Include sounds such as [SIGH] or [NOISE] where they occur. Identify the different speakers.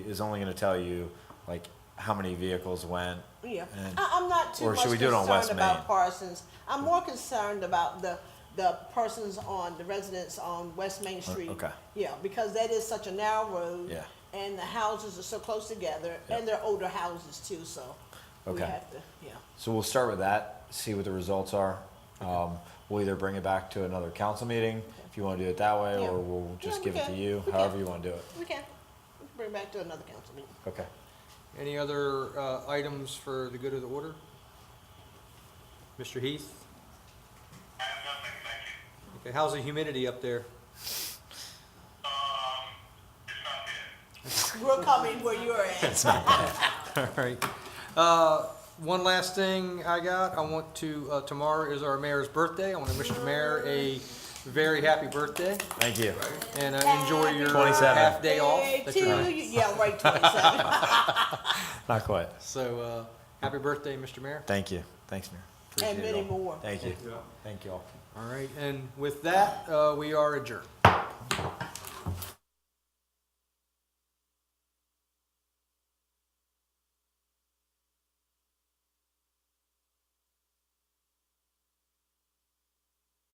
Speaker 1: is only gonna tell you like how many vehicles went.
Speaker 2: Yeah,
Speaker 1: And-
Speaker 2: I, I'm not too
Speaker 1: or
Speaker 2: much
Speaker 1: should we do it on West
Speaker 2: concerned
Speaker 1: Main?
Speaker 2: about Parsons. I'm more concerned about the, the persons on, the residents on West Main Street.
Speaker 1: okay.
Speaker 2: Yeah, because that is such a narrow road.
Speaker 1: Yeah.
Speaker 2: And the houses are so close together, and they're older houses too, so we
Speaker 1: Okay.
Speaker 2: have to, yeah.
Speaker 1: So we'll start with that, see what the results are. Um, we'll either bring it back to another council meeting if you wanna do it that way,
Speaker 2: Yeah.
Speaker 1: or we'll just
Speaker 2: Yeah,
Speaker 1: give
Speaker 2: we
Speaker 1: it to
Speaker 2: can.
Speaker 1: you,
Speaker 2: We
Speaker 1: however
Speaker 2: can.
Speaker 1: you wanna do it.
Speaker 2: We can, we can bring it back to another council meeting.
Speaker 1: Okay.
Speaker 3: Any other uh, items for the good of the order? Mr. Heath?
Speaker 4: I have nothing, thank you.
Speaker 3: Okay, how's the humidity up there?
Speaker 4: Um, it's not good.
Speaker 2: We're coming where you're at.
Speaker 3: [LAUGHS] All right. Uh, One last thing I got, I want to, uh, tomorrow is our mayor's birthday. I want to wish the mayor a very happy birthday
Speaker 1: Thank you.
Speaker 3: and uh, enjoy your
Speaker 1: 27.
Speaker 3: half day off.
Speaker 2: Hey,
Speaker 3: that
Speaker 2: to
Speaker 3: you're on.
Speaker 2: you, yeah, right,
Speaker 3: [LAUGHS]
Speaker 2: twenty-seven.
Speaker 1: Not quite.
Speaker 3: So, uh, happy birthday, Mr. Mayor.
Speaker 1: Thank you. Thanks, Mayor.
Speaker 2: And
Speaker 1: Appreciate it
Speaker 2: many
Speaker 1: all.
Speaker 2: more.
Speaker 1: Thank you. Thank you all.
Speaker 3: All right, and with that, uh, we are adjourned.